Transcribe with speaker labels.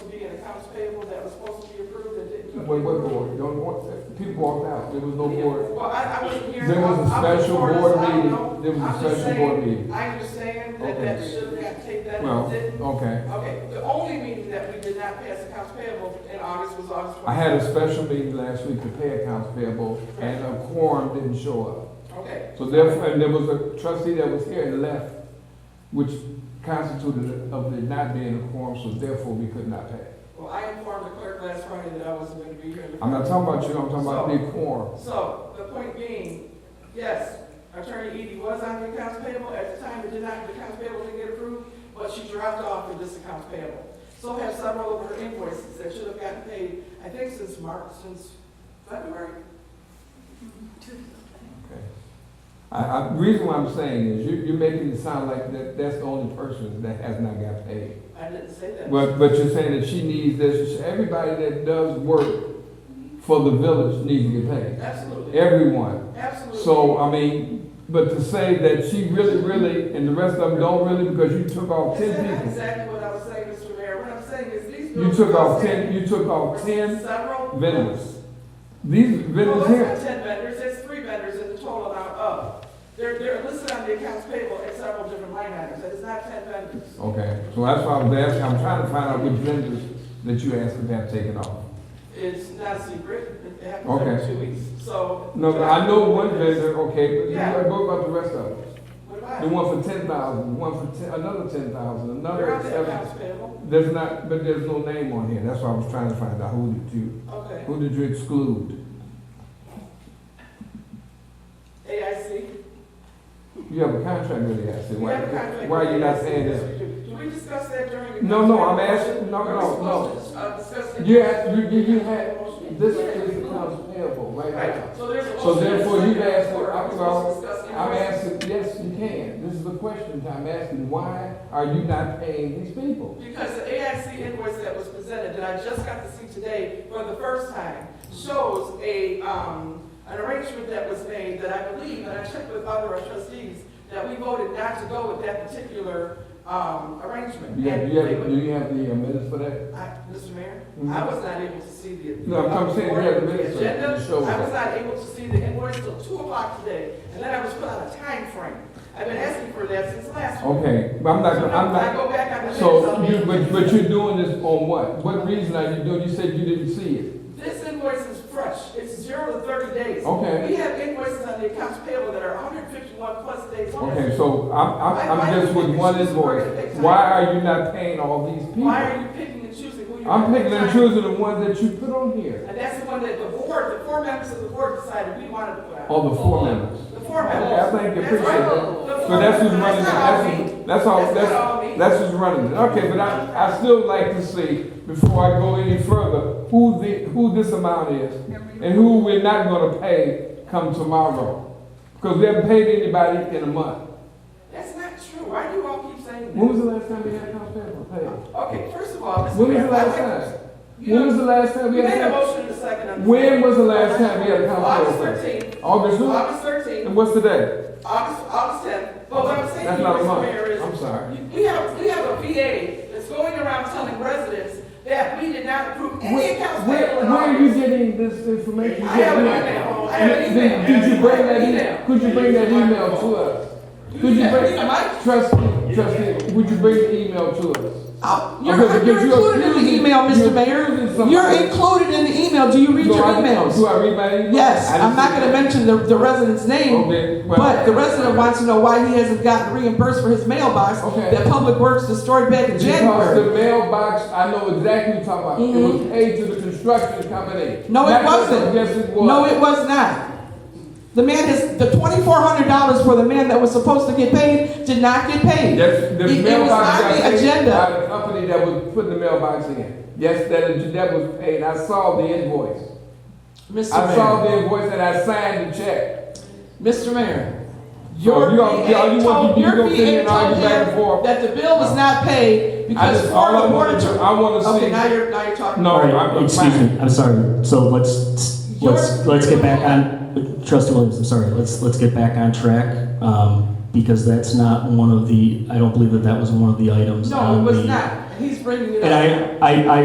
Speaker 1: payable that was supposed to be approved that didn't.
Speaker 2: Wait, wait, wait, wait, don't, walk- people walked out, there was no board.
Speaker 1: Well, I, I wasn't here.
Speaker 2: There was a
Speaker 1: I'm- I'm
Speaker 2: special
Speaker 1: for this.
Speaker 2: board
Speaker 1: I don't know.
Speaker 2: meeting, there was
Speaker 1: I'm
Speaker 2: a
Speaker 1: just
Speaker 2: special
Speaker 1: saying,
Speaker 2: board meeting.
Speaker 1: I understand that
Speaker 2: Okay.
Speaker 1: that should have got taken, that
Speaker 2: Well,
Speaker 1: didn't.
Speaker 2: okay,
Speaker 1: Okay, the only meeting that we did not pass accounts payable in August was August twenty.
Speaker 2: I had a special meeting last week to pay accounts payable, and a quorum didn't show up.
Speaker 1: Okay,
Speaker 2: So therefore, and there was a trustee that was here and left, which constituted of there not being a quorum, so therefore we could not pass.
Speaker 1: well, I informed the clerk last Friday that I wasn't gonna be here.
Speaker 2: I'm not talking about you, I'm talking about the quorum.
Speaker 1: So, the point being, yes, Attorney Edie was on the accounts payable, at the time it did not, the accounts payable didn't get approved, but she dropped off for this accounts payable. So have several of her invoices that should have gotten paid, I think since March, since February.
Speaker 2: Okay. I, I, reason why I'm saying is you, you're making it sound like that, that's the only person that has not got paid.
Speaker 1: I didn't say that.
Speaker 2: But, but you're saying that she needs this, everybody that does work for the village needs to get paid.
Speaker 1: Absolutely,
Speaker 2: Everyone.
Speaker 1: absolutely.
Speaker 2: So, I mean, but to say that she really, really, and the rest of them don't really, because you took off
Speaker 1: Is that
Speaker 2: uh, ten
Speaker 1: not
Speaker 2: people.
Speaker 1: exactly what I was saying, Mr. Mayor? What I'm saying is these.
Speaker 2: You took off ten, you took off ten
Speaker 1: Several.
Speaker 2: vendors. These vendors
Speaker 1: Well,
Speaker 2: here,
Speaker 1: it's not ten vendors, it's three vendors in the total amount of. They're, they're listed on the accounts payable at several different line items, it's not ten vendors.
Speaker 2: okay, so that's why I was asking, I'm trying to find out which vendors that you asked them to have taken off.
Speaker 1: It's not a secret, it happens every
Speaker 2: Okay.
Speaker 1: two weeks, so.
Speaker 2: No, but I know one vendor, okay, but you gotta go about the rest of them.
Speaker 1: What
Speaker 2: The
Speaker 1: about?
Speaker 2: one for ten thousand, one for ten, another ten thousand,
Speaker 1: They're
Speaker 2: another
Speaker 1: on the
Speaker 2: seven.
Speaker 1: accounts payable,
Speaker 2: There's not, but there's no name on here, that's why I was trying to find out who did you,
Speaker 1: okay.
Speaker 2: who did you exclude?
Speaker 1: AIC.
Speaker 2: You have a contract with the asset.
Speaker 1: We
Speaker 2: Why,
Speaker 1: have a contract
Speaker 2: why are you not
Speaker 1: with
Speaker 2: saying
Speaker 1: AIC.
Speaker 2: this?
Speaker 1: Do we discuss that during? the
Speaker 2: No, no, I'm
Speaker 1: contract?
Speaker 2: asking, no,
Speaker 1: Are we
Speaker 2: no, no.
Speaker 1: supposed to, uh, discuss it?
Speaker 2: You had, you, you, you had, this is accounts payable right now.
Speaker 1: Right, so there's a.
Speaker 2: So
Speaker 1: motion.
Speaker 2: therefore, you've asked for-
Speaker 1: Are we supposed to discuss it?
Speaker 2: I'm asking, yes, you can. This is the question. I'm asking, why are you not paying these people?
Speaker 1: Because the AIC invoice that was presented, that I just got to see today for the first time, shows a, um, an arrangement that was made that I believe, and I checked with other trustees, that we voted not to go with that particular, um, arrangement.
Speaker 2: You have,
Speaker 1: And
Speaker 2: you
Speaker 1: they
Speaker 2: have,
Speaker 1: would-
Speaker 2: do you have the minutes for that?
Speaker 1: I, Mr. Mayor,
Speaker 2: Mhm.
Speaker 1: I was not able to see the.
Speaker 2: No, I'm saying we have the minutes, sir.
Speaker 1: agenda.
Speaker 2: You showed
Speaker 1: I
Speaker 2: us.
Speaker 1: was not able to see the invoice till two o'clock today, and then I was put on a time frame. I've been asking for that since last week.
Speaker 2: Okay, but Oh, I'm not,
Speaker 1: So
Speaker 2: I'm
Speaker 1: now I
Speaker 2: not,
Speaker 1: go back on the minutes.
Speaker 2: so
Speaker 1: I'll be
Speaker 2: you,
Speaker 1: able to
Speaker 2: but,
Speaker 1: see
Speaker 2: but
Speaker 1: it.
Speaker 2: you're doing this on what? What reason are you doing? You said you didn't see it.
Speaker 1: This invoice is fresh. It's zero to thirty days.
Speaker 2: Okay.
Speaker 1: We have invoices on the accounts payable that are hundred fifty-one plus days old.
Speaker 2: Okay, so I'm, I'm, I'm just with one invoice. Why are you not paying all these people?
Speaker 1: Why are you picking and choosing who you?
Speaker 2: I'm picking and
Speaker 1: want?
Speaker 2: choosing the ones that you put on here.
Speaker 1: And that's the one that the board, the four members of the board decided we wanted to put out.
Speaker 2: All the four members.
Speaker 1: The four members.
Speaker 2: Yeah, Oh. I think you
Speaker 1: That's
Speaker 2: appreciate
Speaker 1: right.
Speaker 2: that.
Speaker 1: The four
Speaker 2: So that's who's
Speaker 1: members.
Speaker 2: running it.
Speaker 1: not
Speaker 2: That's,
Speaker 1: all me.
Speaker 2: who's- that's all,
Speaker 1: That's not all
Speaker 2: that's,
Speaker 1: me.
Speaker 2: that's who's running it. Okay, but I, I still like to see, before I go any further, who the, who this amount is and who we're not gonna pay come tomorrow. Because we haven't paid anybody in a month.
Speaker 1: That's not true. Why do you all keep saying
Speaker 2: When
Speaker 1: that?
Speaker 2: was the last time we had accounts payable paid?
Speaker 1: Okay, first of all, Mr.
Speaker 2: When was
Speaker 1: Mayor,
Speaker 2: the
Speaker 1: I'd
Speaker 2: last
Speaker 1: like-
Speaker 2: time?
Speaker 1: You
Speaker 2: When was
Speaker 1: know,
Speaker 2: the last time we
Speaker 1: you
Speaker 2: had?
Speaker 1: made a
Speaker 2: accounts-
Speaker 1: motion in a second. on the-
Speaker 2: When was the last time we had accounts
Speaker 1: August
Speaker 2: payable?
Speaker 1: thirteenth.
Speaker 2: August what?
Speaker 1: August thirteenth.
Speaker 2: And what's today?
Speaker 1: August, August tenth, but what I'm saying to
Speaker 2: That's
Speaker 1: you,
Speaker 2: not a
Speaker 1: Mr.
Speaker 2: month.
Speaker 1: Mayor, is.
Speaker 2: I'm sorry.
Speaker 1: you- We have, we have a VA that's going around telling residents that we did not approve any
Speaker 2: Where,
Speaker 1: accounts payable
Speaker 2: where,
Speaker 1: in
Speaker 2: where are you
Speaker 1: August.
Speaker 2: getting this information?
Speaker 1: I have an email, I have an
Speaker 2: Did-
Speaker 1: email.
Speaker 2: Did you bring that
Speaker 1: Email.
Speaker 2: email, could you bring that email to us? Could you
Speaker 1: Yeah,
Speaker 2: bring,
Speaker 1: yeah, Mike.
Speaker 2: trustee, trustee, would you bring the email to us?
Speaker 3: Oh,
Speaker 2: Okay,
Speaker 3: You're,
Speaker 2: because
Speaker 3: you're
Speaker 2: you're
Speaker 3: included in the
Speaker 2: accusing-
Speaker 3: email,
Speaker 2: you're
Speaker 3: Mr.
Speaker 2: accusing
Speaker 3: Mayor.
Speaker 2: somebody.
Speaker 3: You're included in the email. Do you read
Speaker 2: Do
Speaker 3: your
Speaker 2: I- Do
Speaker 3: emails?
Speaker 2: I read my email?
Speaker 3: Yes,
Speaker 2: I didn't
Speaker 3: I'm not
Speaker 2: see
Speaker 3: gonna
Speaker 2: that.
Speaker 3: mention the, the resident's
Speaker 2: Okay,
Speaker 3: name,
Speaker 2: well-
Speaker 3: but the resident wants to know why he hasn't gotten reimbursed for his mailbox
Speaker 2: Okay.
Speaker 3: that Public Works destroyed back in
Speaker 2: Because the
Speaker 3: January.
Speaker 2: mailbox, I know exactly what you're talking about, it was paid to the construction company.
Speaker 3: Mm-hmm. No,
Speaker 2: Not
Speaker 3: it
Speaker 2: to-
Speaker 3: wasn't.
Speaker 2: Yes, it was.
Speaker 3: No, it was not. The man is, the twenty-four hundred dollars for the man that was supposed to get paid did not get paid.
Speaker 2: That's, the
Speaker 3: It- it was
Speaker 2: mailbox
Speaker 3: on
Speaker 2: got
Speaker 3: the
Speaker 2: paid
Speaker 3: agenda.
Speaker 2: by the company that was putting the mailbox in. Yes, that, that was paid, I saw the invoice.
Speaker 3: Mr.
Speaker 2: I saw
Speaker 3: Mayor,
Speaker 2: the invoice and I signed the check.
Speaker 3: Mr. Mayor.
Speaker 2: So
Speaker 3: Your
Speaker 2: you gonna-
Speaker 3: VA
Speaker 2: you want
Speaker 3: told,
Speaker 2: to- you
Speaker 3: your
Speaker 2: gonna sit here
Speaker 3: VA
Speaker 2: and argue
Speaker 3: told
Speaker 2: back and forth?
Speaker 3: him that the bill was not paid
Speaker 2: I
Speaker 3: because
Speaker 2: just, all I
Speaker 3: Florida Board
Speaker 2: wanna
Speaker 3: of
Speaker 2: do,
Speaker 3: Tr-
Speaker 2: I wanna
Speaker 3: Okay, now
Speaker 2: see.
Speaker 3: you're, now you're talking.
Speaker 2: No,
Speaker 4: All right,
Speaker 2: I'm, I'm
Speaker 4: Oh, excuse
Speaker 2: fine.
Speaker 4: me, I'm sorry. So let's,
Speaker 3: Your-
Speaker 4: let's, let's get back on, Trustee Williams, I'm sorry, let's, let's get back on track, um, because that's not one of the, I don't believe that that was one of the items
Speaker 3: No, it
Speaker 4: on
Speaker 3: was
Speaker 4: the.
Speaker 3: not. He's bringing it up.
Speaker 4: And I, I, I